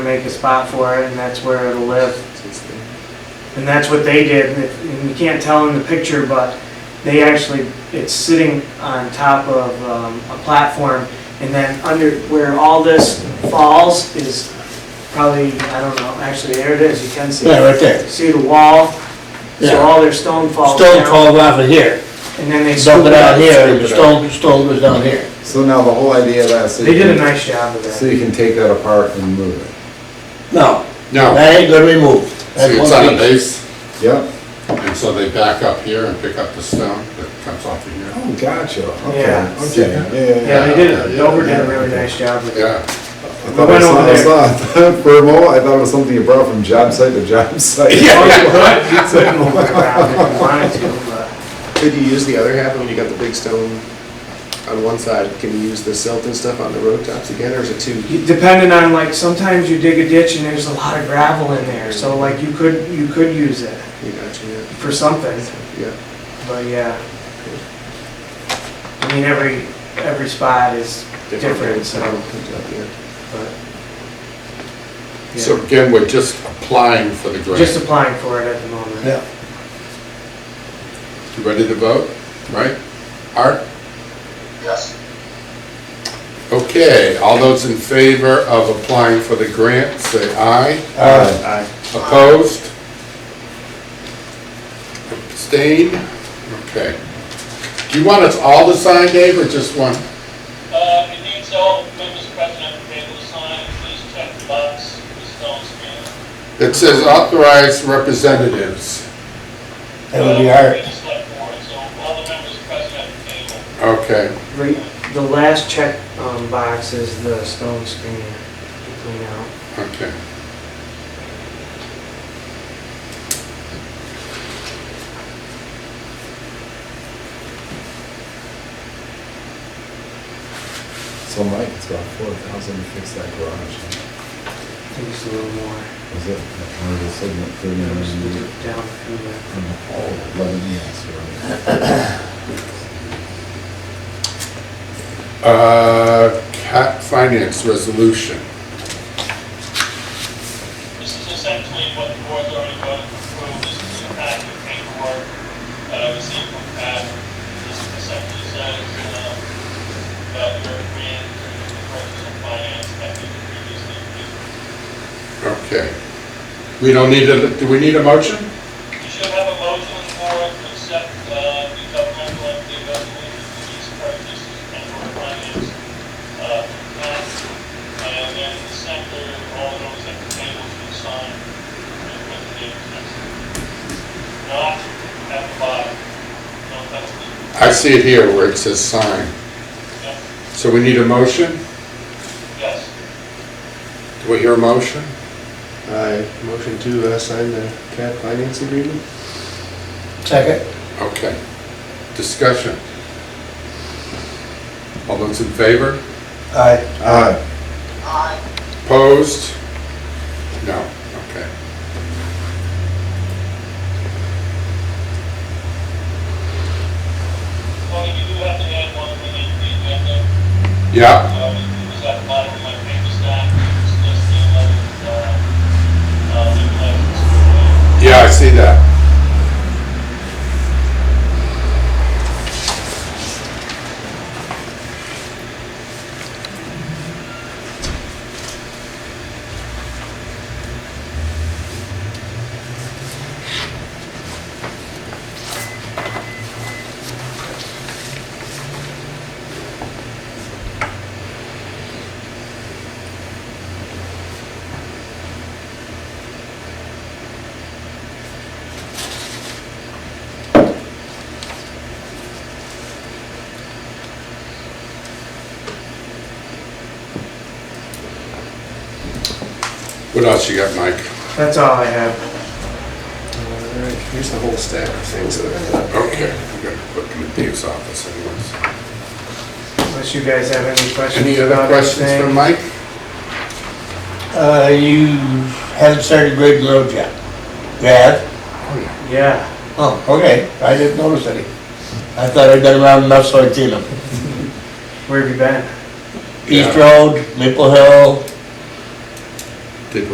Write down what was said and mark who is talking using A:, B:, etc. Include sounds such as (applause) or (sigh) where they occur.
A: make a spot for it, and that's where it'll live. And that's what they did, and you can't tell in the picture, but they actually, it's sitting on top of um, a platform, and then under, where all this falls is probably, I don't know, actually, there it is, you can see.
B: Yeah, right there.
A: See the wall? So
B: Yeah.
A: all their stone falls
B: Stone
A: down,
B: falls off of here,
A: and then they scoop
B: dump it
A: it
B: out
A: up.
B: here, and the stone, stone goes down here.
C: So now the whole idea of that, so
A: They
C: you
A: did a
C: can,
A: nice job of
C: so
A: that.
C: you can take that apart and move it.
B: No,
D: No,
B: that ain't gonna be moved.
D: see,
B: That's
D: it's
B: one
D: on a
B: piece.
D: base,
C: Yep.
D: and so they back up here and pick up the stone that comes off of here.
C: Oh, gotcha. Okay.
A: Yeah.
C: Okay. Yeah.
A: Yeah, they did,
D: Yeah, yeah,
A: Dover did a
C: yeah.
A: really nice job with it.
D: Yeah,
C: I thought I
A: went
C: saw,
A: over
C: I
A: there.
C: saw, (laughs) for a moment, I thought it was something you brought from job site to job (laughs) site.
E: (laughs)
A: You could move it around if you wanted to, but.
E: Could you use the other half, when you got the big stone on one side, can you use the silt and stuff on the road tops again, or is it too?
A: Depending on, like, sometimes you dig a ditch and there's a lot of gravel in there, so like, you could, you could use it
E: You got you, yeah,
A: for something,
E: yeah.
A: but yeah. I mean, every, every spot is different, so,
E: Yeah.
A: but.
D: so again, we're just applying for the
A: Yeah. Just
D: grant.
A: applying for it at the moment.
B: Yeah.
D: You Ready to vote, right? Art?
F: Yes.
D: Okay, all those in favor of applying for the grant, say aye.
B: Uh,
D: Opposed? Abstained? Okay. Do you want us all to sign, Dave, or just one?
G: Uh, it needs all members present at the table to sign, please check the box, the stone screen.
D: It says authorized representatives.
B: that would be hard.
G: Uh, it's like board, so all the members present at the table.
D: Okay.
A: Right, the last check, um, box is the stone screen to clean out.
D: Okay.
C: So Mike, it's about four thousand to fix that garage.
A: I think it's a little more,
C: Was it, or was it thirty
A: down
C: nine?
A: through the,
C: Oh, eleven, yes, you're right.
D: Uh, Cat Finance Resolution.
G: This is essentially what the board's already voted to approve, this is the packet of paperwork that I received from Pat. This is essentially says, um, that you're agreeing to the purchase and finance that we previously approved.
D: Okay. We don't need a, do we need a motion?
G: You should have a motion for it to accept uh, the governmental entity resolution for these purchases and or finance. uh, plans. And then the center, all those at the table should sign and put the date next to it. Not at the bottom. No, that's the,
D: I see it here where it says sign.
G: yeah,
D: So we need a motion?
G: yes.
D: Do we hear a motion?
E: I motion to uh, sign the CAD finance agreement?
B: Second,
D: Okay. Discussion. All those in favor?
B: aye.
C: Aye.
F: Aye.
D: Opposed? No, okay.
G: Well, you do have to add one thing in the agenda.
D: Yeah,
G: Uh, it was at the bottom of my paper stack, it's just the eleventh, uh, uh, liquor license. for, uh,
D: yeah, I see that. What else you got, Mike?
A: that's all I have.
E: All right, here's the whole stack of things that I've got.
D: Okay, I'm gonna put them in Dave's office anyways.
A: Unless you guys have any questions
D: Any other
A: about
D: questions
A: anything.
D: from Mike?
B: Uh, you haven't started grading the road yet? Yeah?
A: Yeah.
B: Oh, okay, I didn't notice any. I thought I'd been around enough so I'd seen them.
A: Where have you been?
B: East
D: Yeah.
B: Road, Maple Hill,